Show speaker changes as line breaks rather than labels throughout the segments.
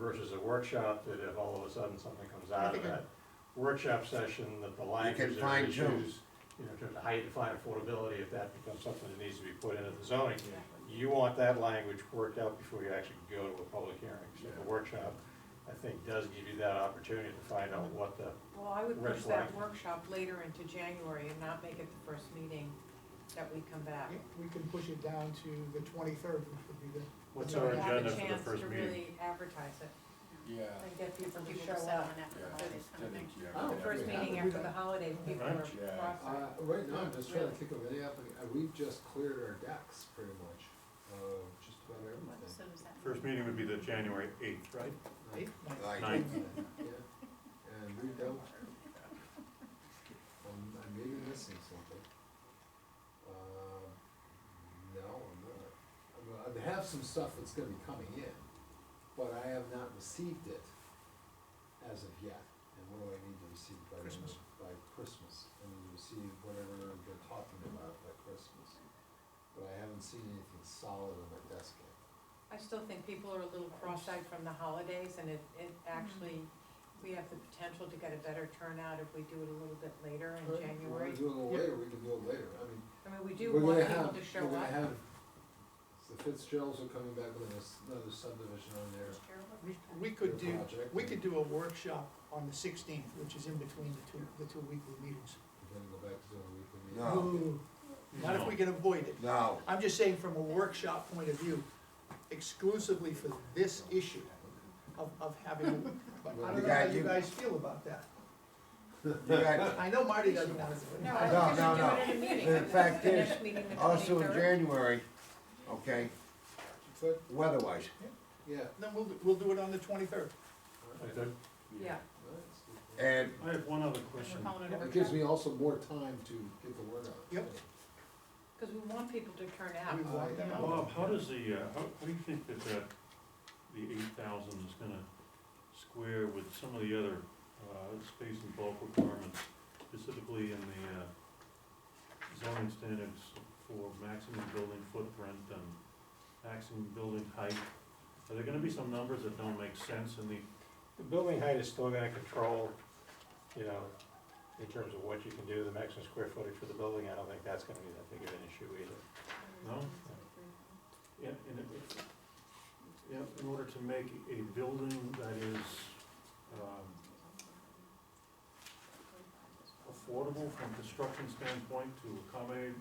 a workshop, that if all of a sudden something comes out of
think I-
that workshop session, that the language or
fine tune.
issues, you know, in terms of how you define affordability, if that becomes something that needs to be put into the zoning, you want that language worked out before you actually go to a public hearing. So
Yeah.
the workshop, I think, does give you that opportunity to find out what the,
Well, I would
Red
push that
flag.
workshop later into January and not make it the first meeting that we come back.
We can push it down to the twenty-third, which would be the,
What's
So
our
We have a
agenda for the
chance
first
to
meeting?
really advertise it
Yeah,
and get people to
People
show
to settle
up.
in after
yeah,
the
I
holidays
think- I
kind of
think,
thing.
yeah.
Oh,
we
The
have
first
to-
yeah.
meeting after the holidays, people are
Yeah.
crossing.
Uh, right now, I'm just trying to think of any applica- uh, we've just cleared our decks pretty much, of just
What
about
was
everything.
it, was that?
First meeting would be the January eighth, right?
Uh,
eight,
Like,
Ninth.
Yeah, and we don't. um, I'm, I'm maybe missing something. Uh, no, I'm not. I mean, I have some stuff that's gonna be coming in, but I have not received it as of yet. And what do I need to receive by, the-
Christmas.
by Christmas? I need to receive whatever they're talking about by Christmas. But I haven't seen anything solid on my desk yet.
I still think people are a little cross-eyed from the holidays and it, it actually, we have the potential to get a better turnout if we do it a little bit later in
Alright, If you
January.
wanna do it a little later, we can do it later. I mean,
I mean, we do
We're
want
gonna
people
have-
to show
We're gonna
up.
have, the Fitzgeralds are coming back with us- another subdivision on their,
Just terrible.
we, we could
their
do,
project.
we could do a workshop on the sixteenth, which is in between the two, the two weekly meetings.
We're gonna go back to doing a weekly meeting.
No.
Oh.
Ooh, Not if we can avoid it.
No,
I'm just saying from a workshop point of view, exclusively for this issue of, of having, but I
You
don't know
got-
how you
you-
guys feel about that.
you got,
I know Marty doesn't want to do it.
No, I
No,
was
no,
gonna do it in a meeting.
The fact
The
is,
next meeting, the
also in
23rd.
January, okay,
But,
weather-wise,
yeah.
Then we'll, we'll do it on the twenty-third.
like,
alright,
the
Yeah,
alright, let's do that.
and
I have one other
We're
question.
calling it a
It gives
workshop.
me also more time to get the word out.
Yep.
because we want people to turn out.
We want them out.
Bob, how does the, uh, how, how do you think that that, the eight thousand is gonna square with some of the other, uh, space and bulk requirements, specifically in the, uh, zoning standards for maximum building footprint and maximum building height? Are there gonna be some numbers that don't make sense in the
The building height is still gonna control, you know, in terms of what you can do, the maximum square footage for the building, I don't think that's gonna be that big of an issue either.
No? Yeah, and it, yeah, in order to make a building that is, um, affordable from construction standpoint to accommodate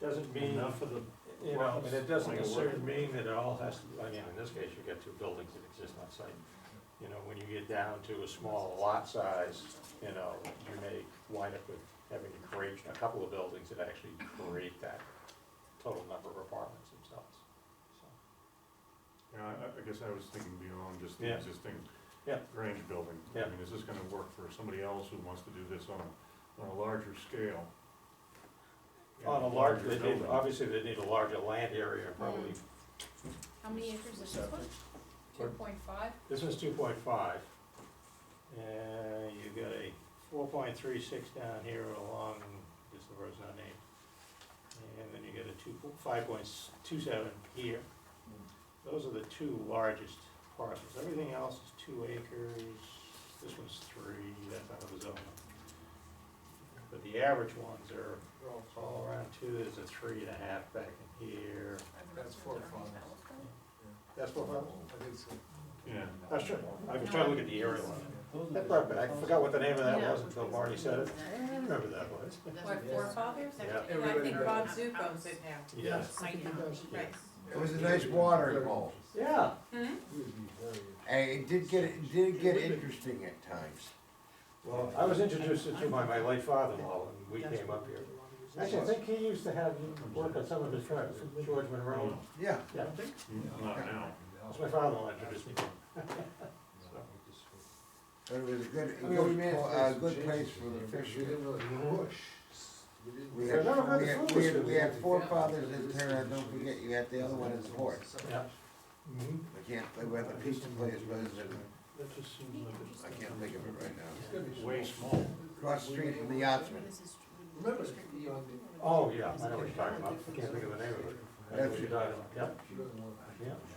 Doesn't mean,
enough of the,
you know, but it doesn't
Like a
necessarily
work-
mean that it all has to, I mean, in this case, you've got two buildings that exist on site. You know, when you get down to a small lot size, you know, you may wind up with having to create a couple of buildings that actually create that total number of apartments themselves, so.
you know, I, I guess I was thinking beyond just the
Yeah.
existing
Yeah.
Grange building.
Yeah.
I mean, is this gonna work for somebody else who wants to do this on a, on a larger scale? You
On
know,
a large, they need,
building.
obviously, they need a larger land area, probably,
How many acres is this one?
Two point five?
this one's two point five. And you've got a four point three six down here along, this is the road's not named. And then you get a two, five point two seven here. Those are the two largest parcels, everything else is two acres, this one's three, that's out of the zone. But the average ones are all around two, there's a three and a half back in here,
That's four farms.
that's what I was.
I think so.
Yeah.
That's true. I was trying to look at the area one. That brought back, I forgot what the name of that was until Marty said it. I remember that was.
What, forefathers?
Yeah.
And I think Bob Zook owns it now.
Yes.
I think he does.
Right.
it was a nice water involved,
Yeah.
It would be very interesting.
and it did get, it did get interesting at times.
Well, I was introduced to it by my late father-in-law and we came up here. Actually, I think he used to have you work on some of his tracks, George Monroe.
Yeah,
Yeah,
Not now.
that's my father-in-law introduced me to him.
but it was a good, a
I mean, we
good,
made
pl-
place
a good
changes
place for
in
the
there, but
fish.
We
to-
didn't really push. We didn't-
We
They're
had,
never good
we
food
had, we
was
had, we
good.
had four fathers in town, don't forget, you had the other one in the fourth.
Yeah. Mhm.
I can't, play with the pizza place, but it's, in-
That just seems
I
like it's.
can't think of it right now.
It's gonna be
Way small.
Across the street from the Yachtsman,
Remember, you know, the-
Oh, yeah, I know what you're talking about. I can't think of the name of it. I know what you're talking about. Yep.
she doesn't want-
Yeah.